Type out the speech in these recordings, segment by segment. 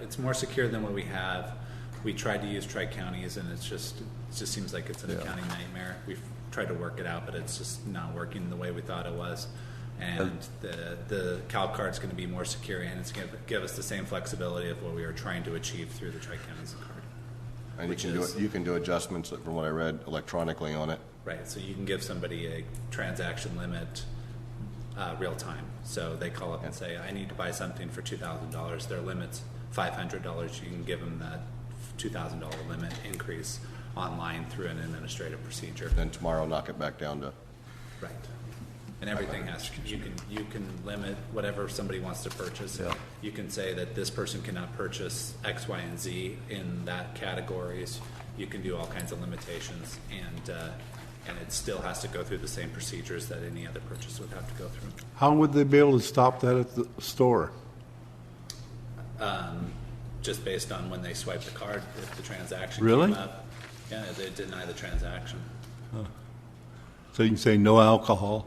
It's more secure than what we have. We tried to use tri counties, and it's just it just seems like it's an Yeah. accounting nightmare. We've tried to work it out, but it's just not working the way we thought it was. And the the CalCard's going to be more secure, and it's going to give us the same flexibility of what we were trying to achieve through the tri counties card. And you Which can do, is- you can do adjustments, from what I read, electronically on it. Right, so you can give somebody a transaction limit uh, real time. So they call up and say, I need to buy something for $2,000. Their limit's $500. You can give them that $2,000 limit increase online through an administrative procedure. Then tomorrow, knock it back down to, Right. And everything has, you can, you can limit whatever somebody wants to purchase. Yeah. You can say that this person cannot purchase X, Y, and Z in that categories. You can do all kinds of limitations and, uh, and it still has to go through the same procedures that any other purchase would have to go through. How would they be able to stop that at the store? Just based on when they swipe the card, if the transaction Really? came up. Yeah, they deny the transaction. So you can say no alcohol.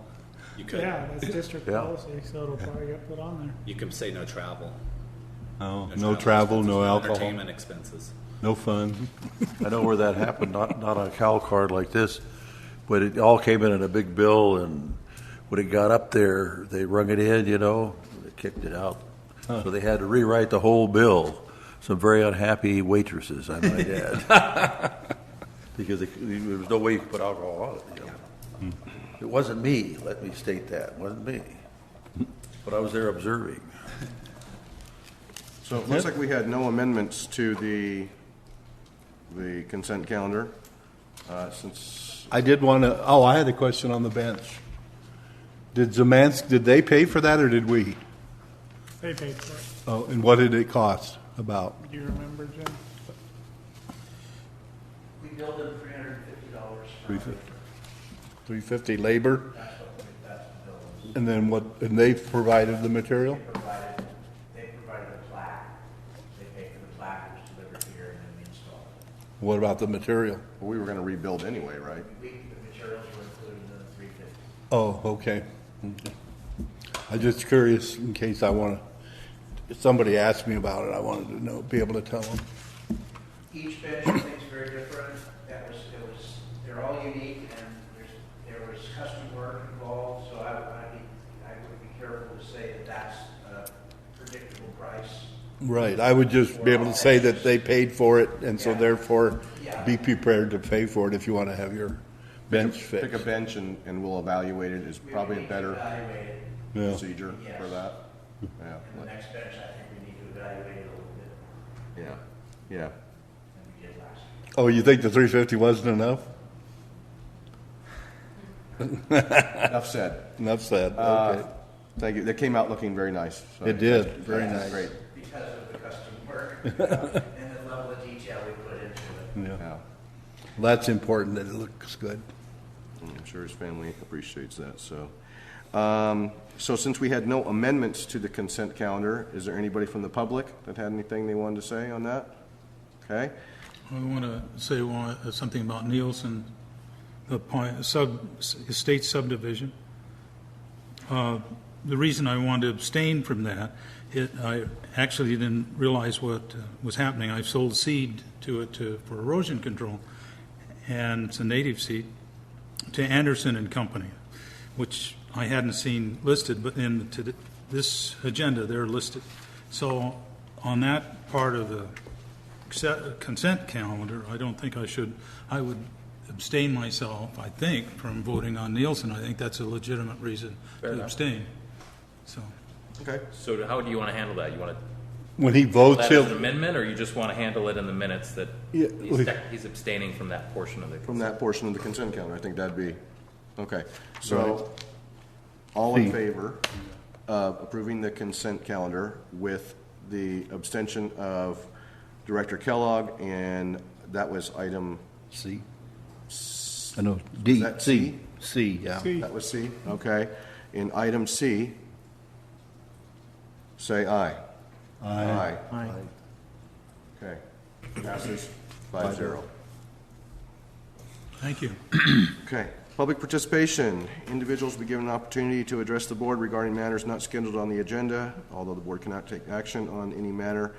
You could, Yeah, that's district Yeah. policy, so it'll probably get put on there. you can say no travel. No, no travel, no expenses, alcohol, Entertainment expenses. no fun. I know where that happened, not, not on a cow card like this, but it all came in in a big bill, and when it got up there, they rung it in, you know, they kicked it out. So they had to rewrite the whole bill. Some very unhappy waitresses, I might add. Because it- there was no way you could put alcohol on it, you know. It wasn't me, let me state that, it wasn't me. But I was there observing. so it looks like we had no amendments to the, the consent calendar, uh, since, I did want to, oh, I had a question on the bench. Did Zemansk, did they pay for that or did we? They paid for it. Oh, and what did it cost about? Do you remember, Jim? We billed them three hundred and fifty dollars. Three fifty. Three fifty labor? And then what, and they provided the material? Provided, they provided a plaque, they paid for the plaque, it was delivered here, and then we installed it. What about the material? we were gonna rebuild anyway, right? We, the materials were included in the three fifty. Oh, okay. I'm just curious in case I want to, if somebody asked me about it, I wanted to know, be able to tell them. Each bench, I think, is very different, that was, it was, they're all unique, and there's, there was custom work involved, so I would, I'd be, I would be careful to say that that's a predictable price. Right, I would just be able to say that they paid for it and so therefore be prepared to pay for it if you want to have your bench Pick a fixed. bench and, and we'll evaluate it is We would probably need a to better Evaluate it, Yeah. procedure for Yes. that. Yeah, and the let- next bench, I think we need to evaluate it a little bit more yeah, yeah. than we did last year. Oh, you think the three fifty wasn't enough? Enough said. Enough said, Uh, okay. Thank you. That came out looking very nice. so- It did, very That's nice. Great, because of the custom work and the level of detail we put into it. yeah. That's important, that it looks good. I'm sure his family appreciates that, so. Um, So since we had no amendments to the consent calendar, is there anybody from the public that had anything they wanted to say on that? Okay, I want to say one- uh, something about Nielsen, the point, sub, estate subdivision. Uh, The reason I wanted to abstain from that, it, I actually didn't realize what uh, was happening. I sold seed to it to, for erosion control, and it's a native seed, to Anderson and Company, which I hadn't seen listed, but in to th- this agenda, they're listed. So on that part of the accept- consent calendar, I don't think I should, I would abstain myself, I think, from voting on Nielsen. I think that's a legitimate reason to abstain. So, okay. So how do you want to handle that? You want to When he call votes, that as an he'll, amendment, or you just want to handle it in the minutes that Yeah, he's we- sec- he's abstaining from that portion of the From consent? that portion of the consent calendar, I think that'd be, okay. So, all in favor of approving the consent calendar with the abstention of Director Kellogg, and that was item, C. I know, D, that C, C, yeah. that was C, okay. In item C, say aye. Aye. Aye. Okay. Passes five zero. thank you. Okay. Public participation. Individuals will be given an opportunity to address the board regarding matters not scheduled on the agenda, although the board cannot take action on any matter